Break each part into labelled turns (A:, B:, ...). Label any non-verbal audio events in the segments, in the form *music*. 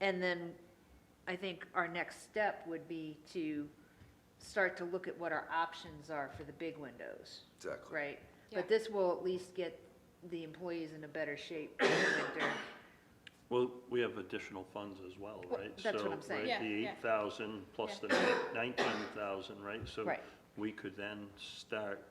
A: And then I think our next step would be to start to look at what our options are for the big windows,
B: Exactly.
A: right?
C: Yeah.
A: But this will at least get the employees in a better shape for the
C: *coughs*
A: winter.
D: Well, we have additional funds as well,
A: Well,
D: right?
A: that's what I'm
D: So, right,
A: saying.
C: Yeah,
D: the
C: yeah.
D: eight thousand plus the nineteen thousand, right? So
A: Right.
D: we could then start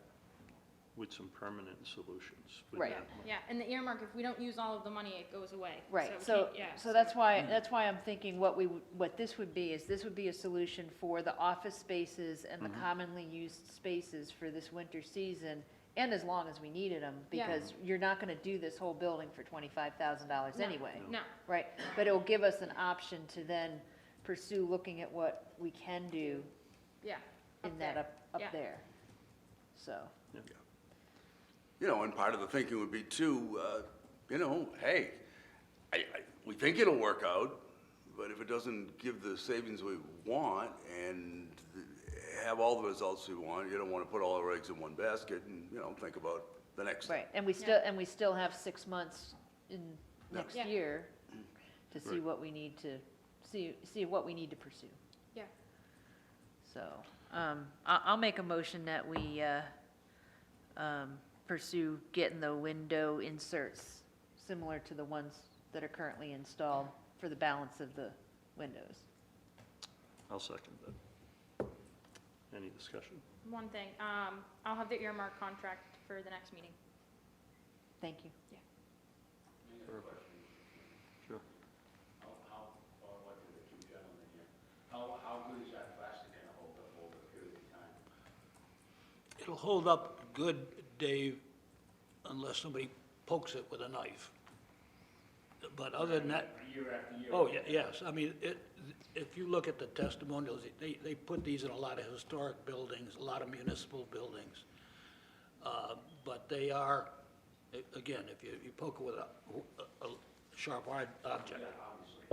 D: with some permanent solutions with
A: Right.
D: that
A: Yeah.
D: money.
C: Yeah, and the earmark, if we don't use all of the money, it goes away.
A: Right,
C: we
A: so,
C: can't- yeah,
A: so that's why, that's why I'm thinking what we, would- what this would be is this would be a solution for the office spaces and the commonly used spaces for this winter season and as long as we needed them,
C: Yeah.
A: because you're not gonna do this whole building for twenty-five thousand dollars
C: No,
A: anyway.
C: No,
A: Right, but it'll give us an option to then pursue looking at what we can do
C: yeah.
A: in that up,
C: yeah.
A: up there. So,
B: You know, and part of the thinking would be too, uh, you know, hey, I, I, we think it'll work out, but if it doesn't give the savings we want and have all the results we want, you don't want to put all our eggs in one basket and, you know, think about the next.
A: right, and we still, and we still have six months in
B: Yeah.
A: next
C: Yeah.
A: year to see
D: Right.
A: what we need to, see, see what we need to pursue.
C: Yeah,
A: So, um, I, I'll make a motion that we, uh, um, pursue getting the window inserts similar to the ones that are currently installed for the balance of the windows.
D: I'll second that. Any discussion?
C: one thing, um, I'll have the earmark contract for the next meeting.
A: Thank you.
D: Sure.
E: How, how, or what do the two gentlemen here, how, how good is that plastic gonna hold up over a period of time?
F: It'll hold up good, Dave, unless somebody pokes it with a knife. But other than that,
E: Year after year?
F: oh, yeah, yes, I mean, it, if you look at the testimonials, they, they put these in a lot of historic buildings, a lot of municipal buildings. Uh, But they are, a- again, if you, you poke it with a, a sharp hard object.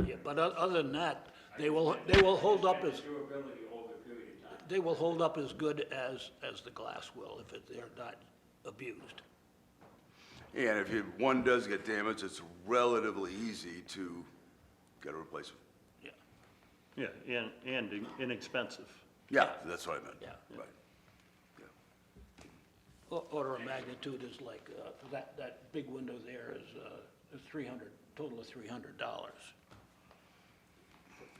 F: Yeah, but o- other than that, they will, they will hold up as
E: Durability over a period of time.
F: they will hold up as good as, as the glass will if it- they're not abused.
B: And if you, one does get damaged, it's relatively easy to get a replacement.
F: Yeah,
D: Yeah, and, and in- inexpensive.
B: Yeah, that's what I meant.
F: Yeah.
B: Right. Yeah.
F: O- Order of magnitude is like, uh, that, that big window there is uh, is 300, total of $300.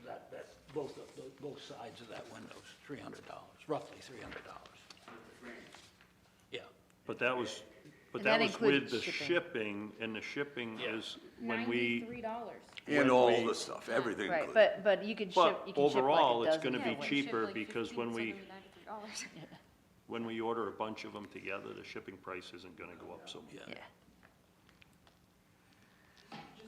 F: That, that's both, of tho- both sides of that window is $300, roughly $300. Yeah,
D: But that was, but
A: And that
D: that was
A: included
D: with the shipping, and the shipping
F: Yeah.
D: is when we,
C: Ninety-three dollars.
D: When
B: And all
D: we-
B: the stuff, everything
A: Right,
B: included.
A: but, but you can ship,
D: But
A: you can ship
D: overall,
A: like a
D: it's
A: dozen.
D: gonna be
A: that way.
D: cheap. cheaper because when we-
C: dollars. *laughs*
D: when we order a bunch of them together, the shipping price isn't gonna go up so much.
A: Yeah,
F: yeah.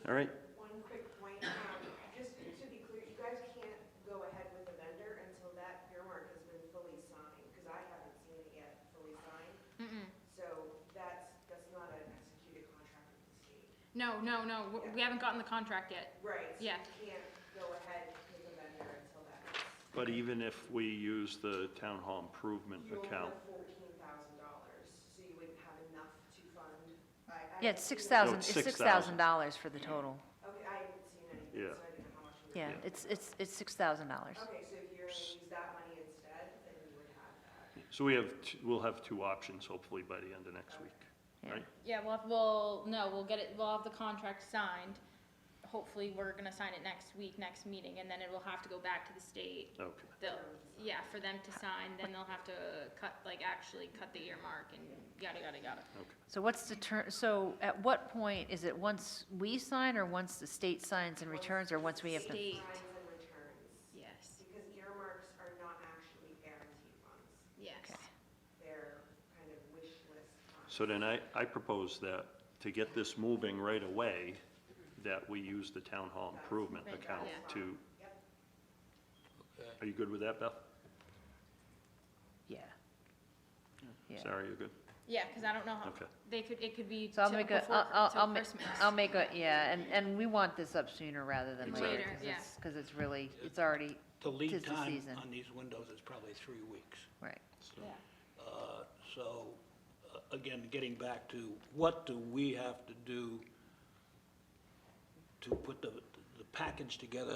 D: All right,
G: One quick point, um, just to be clear, you guys can't go ahead with the vendor until that earmark has been fully signed, because I haven't seen it yet fully signed. So that's, that's not an executed contract with the state.
C: No, no, no, we- we haven't gotten the contract yet.
G: Right.
C: Yeah.
G: So you can't go ahead with the vendor until that is.
D: but even if we use the town hall improvement
G: You only
D: account,
G: have fourteen thousand dollars, so you wouldn't have enough to fund. I- I
A: yeah,
G: haven't
A: it's six
G: seen-
A: thousand,
D: No,
A: it's
D: it's
A: six thousand
D: $6,000.
A: dollars for the total.
G: Okay, I haven't seen anything,
D: Yeah.
G: so I didn't know how much. you were-
A: Yeah, it's, it's, it's six thousand dollars.
G: Okay, so if you're gonna use that money instead, then you would have that.
D: so we have, t- we'll have two options hopefully by the end of next week,
A: Yeah.
D: right?
C: Yeah, we'll, have- we'll, no, we'll get it, we'll have the contract signed. Hopefully, we're gonna sign it next week, next meeting, and then it will have to go back to the state.
D: Okay.
C: They'll, yeah, for them to sign, then they'll have to cut, like, actually cut the earmark and yada, yada, yada.
A: So what's the ter, so at what point, is it once we sign or once the state signs and returns or once we have to?
C: State,
G: Signs and returns.
C: yes,
G: Because earmarks are not actually guaranteed funds,
C: yes.
G: they're kind of wish list funds.
D: So then I, I propose that to get this moving right away, that we use the town hall improvement
C: Right,
D: account
C: yeah.
D: to,
G: Yep,
D: are you good with that, Beth?
A: Yeah. Yeah.
D: Sarah, you're good?
C: Yeah, because I don't know how,
D: Okay.
C: they could, it could be
A: So I'll
C: till
A: make a,
C: before-
A: I'll, I'll,
C: till
A: I'll make,
C: Christmas.
A: I'll make a, yeah, and, and we want this up sooner rather than later.
C: Later,
A: 'cause
C: yeah.
A: it's- Cause it's really, it's already,
F: The
A: Tis
F: lead
A: the
F: time
A: season.
F: on these windows is probably three weeks.
A: right.
C: Yeah.
F: Uh, So, uh, again, getting back to what do we have to do to put the, the package together